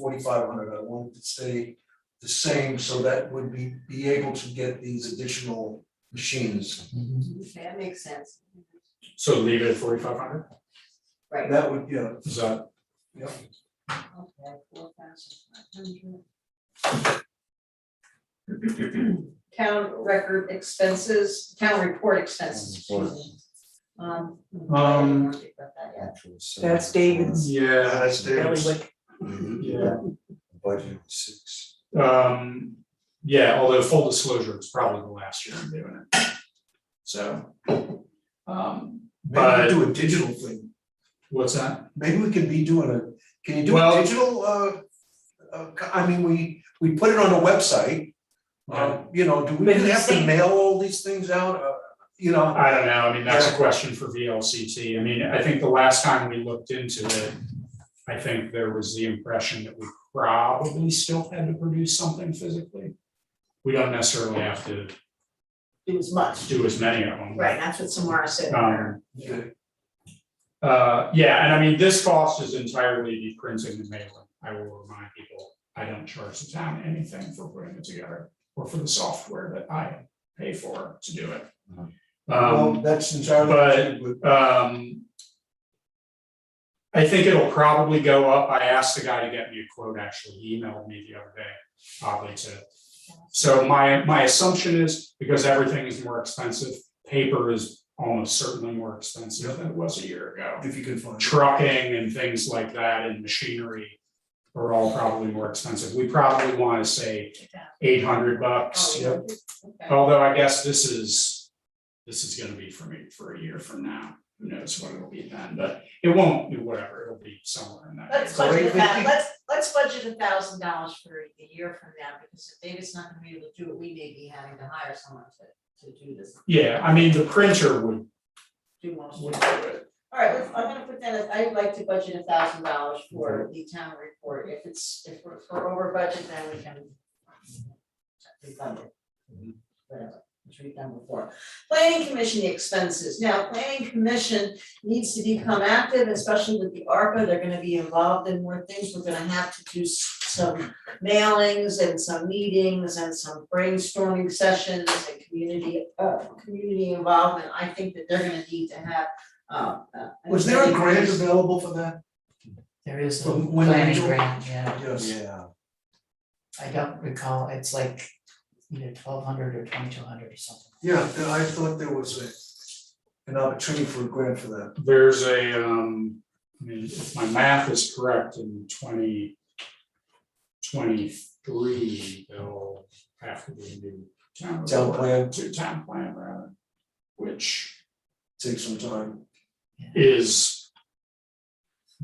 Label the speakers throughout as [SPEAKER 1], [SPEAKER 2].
[SPEAKER 1] forty-five hundred, I wanted to stay the same, so that would be, be able to get these additional machines.
[SPEAKER 2] Okay, that makes sense.
[SPEAKER 3] So leave it at forty-five hundred,
[SPEAKER 2] Right,
[SPEAKER 1] That would, yeah,
[SPEAKER 3] is that,
[SPEAKER 2] okay, four thousand five hundred. Town record expenses, town report expenses, excuse me. Um.
[SPEAKER 1] Um,
[SPEAKER 2] I don't think about that yet.
[SPEAKER 4] That's David's.
[SPEAKER 1] Yeah,
[SPEAKER 3] yeah,
[SPEAKER 1] that's David's.
[SPEAKER 3] yeah,
[SPEAKER 5] Mm-hmm. Budget six.
[SPEAKER 3] um, yeah, although full disclosure, it's probably the last year I'm doing it. So, um,
[SPEAKER 1] Maybe we
[SPEAKER 3] but-
[SPEAKER 1] do a digital thing,
[SPEAKER 3] what's that?
[SPEAKER 1] maybe we could be doing a, can you do a
[SPEAKER 3] Well-
[SPEAKER 1] digital, uh, uh, co- I mean, we, we put it on a website. Um, you know, do we
[SPEAKER 4] But he's
[SPEAKER 1] have to
[SPEAKER 4] saying-
[SPEAKER 1] mail all these things out, uh, you know?
[SPEAKER 3] I don't know, I mean, that's a question for VLCT, I mean, I think the last time we looked into it, I think there was the impression that we probably still had to produce something physically. We don't necessarily have to
[SPEAKER 4] It was much.
[SPEAKER 3] do as many of them.
[SPEAKER 4] Right, that's what Samara said.
[SPEAKER 3] Um,
[SPEAKER 1] Okay.
[SPEAKER 3] Uh, yeah, and I mean, this cost is entirely the printing and mailing. I will remind people, I don't charge the town anything for putting it together or for the software that I pay for to do it.
[SPEAKER 1] Well,
[SPEAKER 3] Um,
[SPEAKER 1] that's entirely.
[SPEAKER 3] but-
[SPEAKER 1] true,
[SPEAKER 3] um, I think it'll probably go up. I asked the guy to get me a quote, actually. He emailed me the other day, oddly to. So my, my assumption is because everything is more expensive, paper is almost certainly more expensive than it was a year ago
[SPEAKER 1] If you can find.
[SPEAKER 3] trucking and things like that and machinery are all probably more expensive. We probably want to say eight hundred bucks.
[SPEAKER 2] Oh, Okay,
[SPEAKER 3] Although I guess this is, this is gonna be for me for a year from now. Who knows what it'll be then, but it won't be whatever, it'll be somewhere in that.
[SPEAKER 2] let's
[SPEAKER 3] neighborhood.
[SPEAKER 2] budget a thou-
[SPEAKER 1] Wait, wait.
[SPEAKER 2] let's, let's budget a thousand dollars for a year from now, because if David's not gonna be able to do it, we may be having to hire someone to, to do this,
[SPEAKER 3] Yeah, I mean, the printer would,
[SPEAKER 2] do most of it.
[SPEAKER 3] would do it.
[SPEAKER 2] All right, let's, I'm gonna put that, as- I'd like to budget a thousand dollars for the town report, if it's, if we're, if we're over budget, then we can. Refund it.
[SPEAKER 1] Mm-hmm.
[SPEAKER 2] Whatever, which we've done before. Planning commission expenses, now, planning commission needs to become active, especially with the ARPA, they're gonna be involved in more things, we're gonna have to do s- some. Mailings and some meetings and some brainstorming sessions and community, uh, community involvement, I think that they're gonna need to have uh, uh,
[SPEAKER 1] Was there a
[SPEAKER 2] anybody
[SPEAKER 1] grant
[SPEAKER 2] who's-
[SPEAKER 1] available for that?
[SPEAKER 6] There is a
[SPEAKER 1] From when we
[SPEAKER 6] planning
[SPEAKER 1] do-
[SPEAKER 6] grant, yeah,
[SPEAKER 1] Yes.
[SPEAKER 5] Yeah.
[SPEAKER 6] I don't recall, it's like either twelve hundred or twenty-two hundred or something.
[SPEAKER 1] Yeah, th- I thought there was a, an opportunity for a grant for that.
[SPEAKER 3] There's a, um, I mean, if my math is correct, in twenty twenty-three, they'll have to be a new town.
[SPEAKER 1] Town plan.
[SPEAKER 3] To town plan rather, which
[SPEAKER 1] Take some time.
[SPEAKER 3] is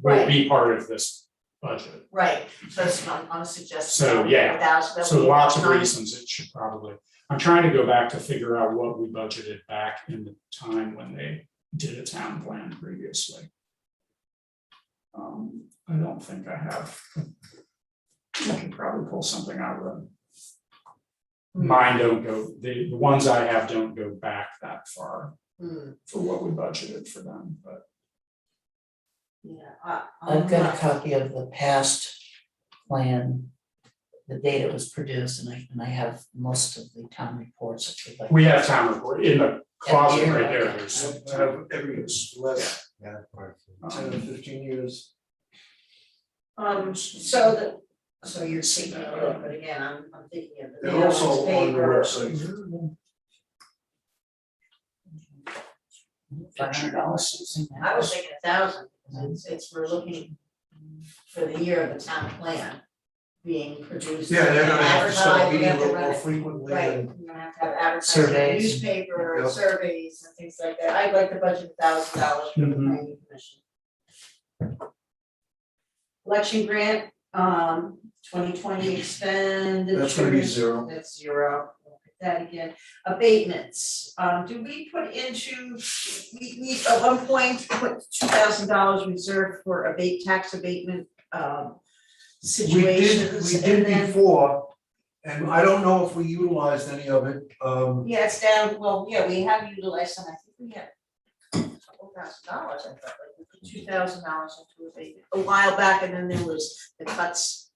[SPEAKER 3] will be part of this budget.
[SPEAKER 2] Right, so that's what I'm, I'm suggesting.
[SPEAKER 3] So, yeah.
[SPEAKER 2] Thousand, that would
[SPEAKER 3] So
[SPEAKER 2] be
[SPEAKER 3] lots of
[SPEAKER 2] nine-
[SPEAKER 3] reasons it should probably, I'm trying to go back to figure out what we budgeted back in the time when they did a town plan previously. Um, I don't think I have. I can probably pull something out of them. Mine don't go, the, the ones I have don't go back that far
[SPEAKER 2] Hmm,
[SPEAKER 3] for what we budgeted for them, but.
[SPEAKER 2] yeah, I, I'm
[SPEAKER 6] I've got a
[SPEAKER 2] not-
[SPEAKER 6] copy of the past plan, the date it was produced, and I, and I have most of the town reports if you'd like.
[SPEAKER 3] We have town report in the closet
[SPEAKER 6] Yeah.
[SPEAKER 3] right there,
[SPEAKER 1] I
[SPEAKER 3] there's.
[SPEAKER 1] have- I have every year's last
[SPEAKER 5] Yeah, perfect.
[SPEAKER 1] ten or fifteen years.
[SPEAKER 2] Um, so the, so you're thinking of it, but again, I'm, I'm thinking of the
[SPEAKER 1] They're also
[SPEAKER 2] mailings,
[SPEAKER 1] on the
[SPEAKER 2] paper,
[SPEAKER 1] website.
[SPEAKER 6] Five hundred dollars, something like that.
[SPEAKER 2] I was thinking a thousand, because it's, it's, we're looking for the year of the town plan being produced.
[SPEAKER 1] Yeah, they're gonna have to start
[SPEAKER 2] advertised,
[SPEAKER 1] meeting
[SPEAKER 2] we
[SPEAKER 1] a
[SPEAKER 2] have to
[SPEAKER 1] little
[SPEAKER 2] run
[SPEAKER 1] more
[SPEAKER 2] it.
[SPEAKER 1] frequently
[SPEAKER 2] Right,
[SPEAKER 1] and.
[SPEAKER 2] you're gonna have to have advertising, in the
[SPEAKER 6] Surveys.
[SPEAKER 2] newspaper,
[SPEAKER 1] Yep.
[SPEAKER 2] surveys and things like that, I'd like to budget a thousand dollars for the
[SPEAKER 1] Mm-hmm.
[SPEAKER 3] Mhm.
[SPEAKER 2] planning commission. Election grant, um, twenty twenty expenditure.
[SPEAKER 1] That's gonna be zero.
[SPEAKER 2] That's zero, Look at that again, abatements, um, do we put into, we, we, at one point, put two thousand dollars reserved for abate, tax abatement, um.
[SPEAKER 1] We did,
[SPEAKER 2] Situations
[SPEAKER 1] we
[SPEAKER 2] and
[SPEAKER 1] did
[SPEAKER 2] then-
[SPEAKER 1] before, and I don't know if we utilized any of it, um,
[SPEAKER 2] Yeah, it's down, well, yeah, we have utilized some, I think we had a couple thousand dollars, I thought, like two thousand dollars into abatement a while back, and then there was the cuts